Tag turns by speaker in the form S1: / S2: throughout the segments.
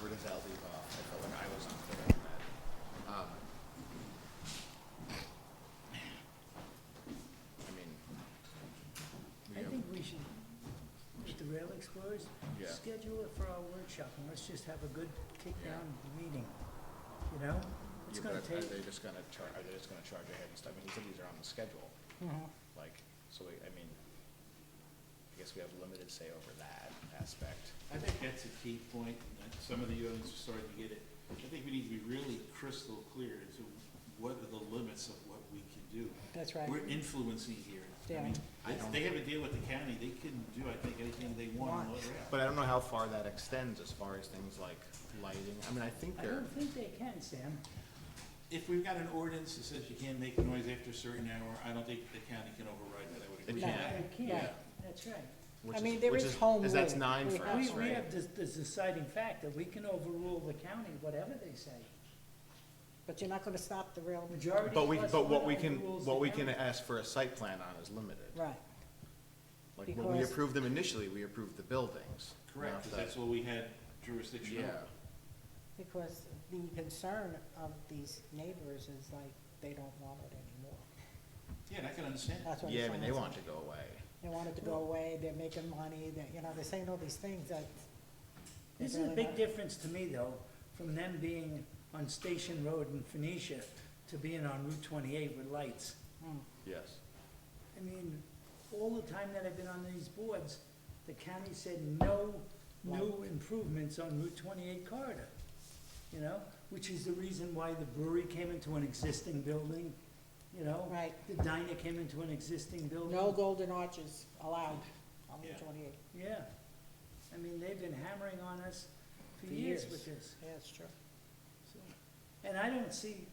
S1: leave off. I felt like I was unclear on that. Um, I mean, we
S2: I
S1: have,
S2: think we should, with the rail explorers,
S1: Yeah.
S2: schedule it for our workshop and let's just have a good
S1: Yeah.
S2: kick-down meeting, you know? It's
S1: yeah,
S2: gonna
S1: but are
S2: take,
S1: they just gonna char, are they just gonna charge ahead and stuff? I mean, he said these are on the schedule,
S2: Mhm.
S1: like, so we, I mean, I guess we have limited say over that aspect.
S3: I think that's a key point, and that some of the others are starting to get it. I think we need to be really crystal clear as to what are the limits of what we can do.
S2: that's right.
S3: We're influencing here. I mean,
S1: Yeah.
S3: it's- They have a deal with the county, they can do, I think, anything they want. on the rail.
S1: But I don't know how far that extends as far as things like lighting. I mean, I think
S2: I
S1: they're,
S2: don't think they can, Sam.
S3: If we've got an ordinance that says you can't make noise after a certain hour, I don't think the county can override that, I would agree with
S2: No,
S1: can't.
S3: that.
S2: they can't,
S3: Yeah.
S2: that's right.
S1: which
S4: I
S1: is-
S4: mean, there
S1: which
S4: is home
S1: Is that's
S4: rule.
S1: nine
S4: We
S1: for
S4: have-
S1: us,
S2: We, we
S1: right?
S2: have this, this deciding fact that we can overrule the county, whatever they say.
S4: But you're not gonna stop the rail,
S2: Majority
S1: But we,
S2: plus
S1: but what
S2: one
S1: we can,
S2: overrules
S1: what
S2: the
S1: we can
S2: county.
S1: ask for a site plan on is limited.
S4: right,
S1: Like, when we
S4: Because-
S1: approved them initially, we approved the buildings.
S3: Correct,
S1: not
S3: because
S1: the-
S3: that's what we had jurisdiction
S1: Yeah,
S3: over.
S4: because the concern of these neighbors is like, they don't want it anymore.
S3: Yeah, and I can understand.
S4: That's what I'm
S1: yeah, I mean,
S4: saying.
S1: they want to go away.
S4: They want it to go away, they're making money, they you know, they're saying all these things that. they
S2: This is a
S4: really
S2: big
S4: not-
S2: difference to me, though, from them being on Station Road in Phoenicia to being on Route twenty-eight with lights.
S4: Mm.
S1: Yes.
S2: I mean, all the time that I've been on these boards, the county said no new improvements on Route twenty-eight corridor. You know, which is the reason why the brewery came into an existing building, you know?
S4: Right,
S2: The diner came into an existing building.
S4: no golden arches allowed on
S3: Yeah.
S4: Route twenty-eight,
S2: Yeah. I mean, they've been hammering on us for
S4: For
S2: years
S4: years.
S2: with this.
S4: yeah, it's true.
S2: so. And I don't see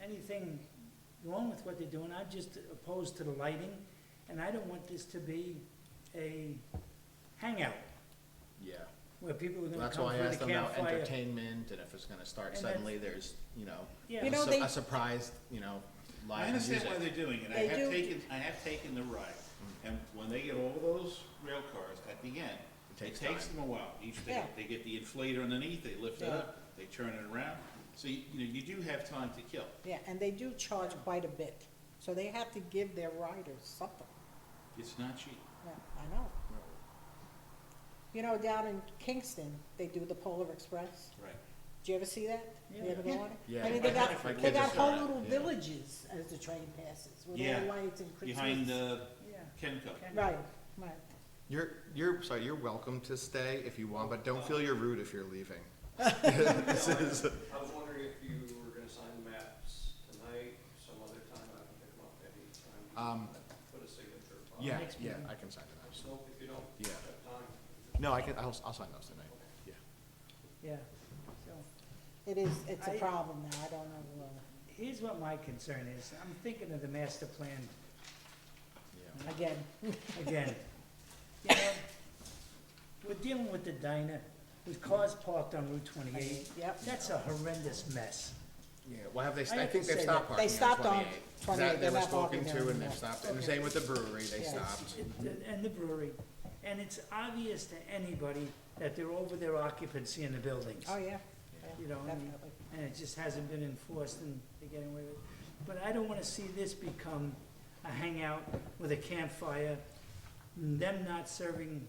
S2: anything wrong with what they're doing. I'm just opposed to the lighting, and I don't want this to be a hangout
S1: Yeah.
S2: where people are
S1: Well,
S2: gonna
S1: That's
S2: come
S1: why I
S2: for the
S1: asked them about
S2: campfire.
S1: entertainment and if it's gonna start
S2: And that's-
S1: suddenly, there's, you know,
S2: Yeah.
S1: a
S4: You know,
S1: su-
S4: they-
S1: a surprise, you know, live
S3: I
S1: music. Mm.
S3: understand why they're doing it, I
S4: They
S3: have
S4: do-
S3: taken, I have taken the ride, and when they get all those rail cars at the end,
S1: It
S3: it
S1: takes
S3: takes
S1: time.
S3: them a while, each day,
S4: Yeah.
S3: they get the inflator underneath, they lift it
S4: Yeah.
S3: up, they turn it around, so you, you know, you do have time to kill,
S4: Yeah, and they do charge quite a bit, so they have to give their riders something,
S3: it's not cheap.
S4: yeah, I know. You know, down in Kingston, they do the Polar Express.
S3: Right.
S4: Did you ever see that? You ever go on it?
S1: Yeah.
S4: I mean, they got,
S3: My
S4: they
S3: kids
S4: got
S3: are
S4: whole
S3: fine,
S4: little
S1: yeah.
S4: villages as the train passes, with
S3: Yeah.
S4: all lights and Christmas.
S3: Behind the
S2: Yeah.
S3: Kenco,
S2: Okay.
S4: Right, right.
S1: You're, you're, sorry, you're welcome to stay if you want, but don't feel you're rude if you're leaving. This is,
S5: I was wondering if you were gonna sign the maps tonight, some other time, I can pick them up anytime.
S1: Um,
S5: Put a signature. on it.
S1: yeah,
S2: Next
S1: yeah,
S2: meeting.
S1: I can sign it out.
S5: Just hope if you don't
S1: Yeah.
S5: have time.
S1: No, I can, I'll, I'll sign those tonight, yeah.
S2: Yeah. So,
S4: It is, it's a
S2: I-
S4: problem now, I don't know, uh,
S2: here's what my concern is. I'm thinking of the master plan
S1: Yeah.
S4: again,
S2: again. You know, We're dealing with the diner, with cars parked on Route twenty-eight.
S4: yep.
S2: That's a horrendous mess.
S1: Yeah, well, have they,
S2: I
S1: st- I
S2: have
S1: think
S2: to
S1: they've
S2: say
S1: stopped
S4: that
S1: parking
S4: they
S1: on
S4: stopped on
S1: twenty-eight.
S4: 28,
S1: That they
S4: they're
S1: were
S4: not
S1: spoken
S4: parking there
S1: to and they've
S4: anymore.
S1: stopped, and the
S4: Okay.
S1: same with the brewery, they
S4: Yeah.
S1: stopped.
S2: It- And the brewery. And it's obvious to anybody that they're over their occupancy in the buildings.
S4: oh, yeah,
S2: You
S4: yeah,
S2: know, I mean-
S4: definitely.
S2: And it just hasn't been enforced and they're getting away with it. But I don't wanna see this become a hangout with a campfire, them not serving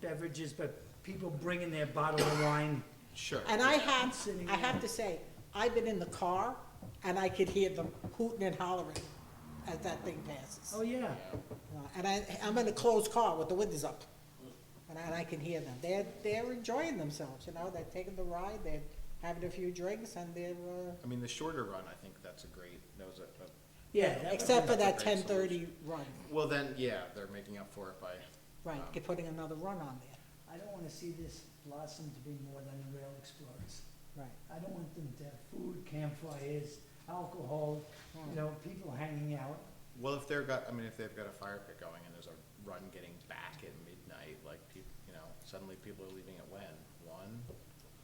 S2: beverages, but people bringing their bottle of wine.
S1: Sure.
S4: And I had,
S2: Sitting
S4: I have
S2: there.
S4: to say, I've been in the car, and I could hear them hooting and hollering as that thing passes.
S2: Oh, yeah.
S4: Uh, And I, I'm in a closed car with the windows up, and I, and I can hear them. They're, they're enjoying themselves, you know, they're taking the ride, they're having a few drinks, and they're, uh,
S1: I mean, the shorter run, I think that's a great, that was a, a-
S2: Yeah. that-
S4: except for that
S1: That's a great
S4: ten thirty run,
S1: well, then, yeah, they're making up for it by,
S3: Uh-huh.
S4: right, they're putting another run on
S2: I don't wanna see this blossom to be more than the Rail Explorers.
S4: there, right.
S2: I don't want them to have food, campfires, alcohol, you
S4: Mm.
S2: know, people hanging out.
S1: well, if they're got, I mean, if they've got a fire pit going and there's a run getting back at midnight, like, peop you know, suddenly people are leaving at when? One?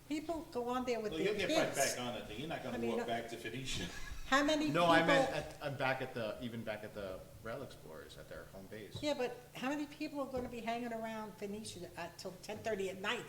S4: People go on there with
S3: well,
S4: their
S3: you'll get right
S4: kids.
S3: back on it, though. you're not
S4: I
S3: gonna
S4: mean, uh,
S3: walk back to Phoenicia.
S4: How many people?
S1: No, I meant at, I'm back at the, even back at the Rail Explorers at their home base.
S4: Yeah, but how many people are gonna be hanging around Phoenicia at- till ten thirty at night?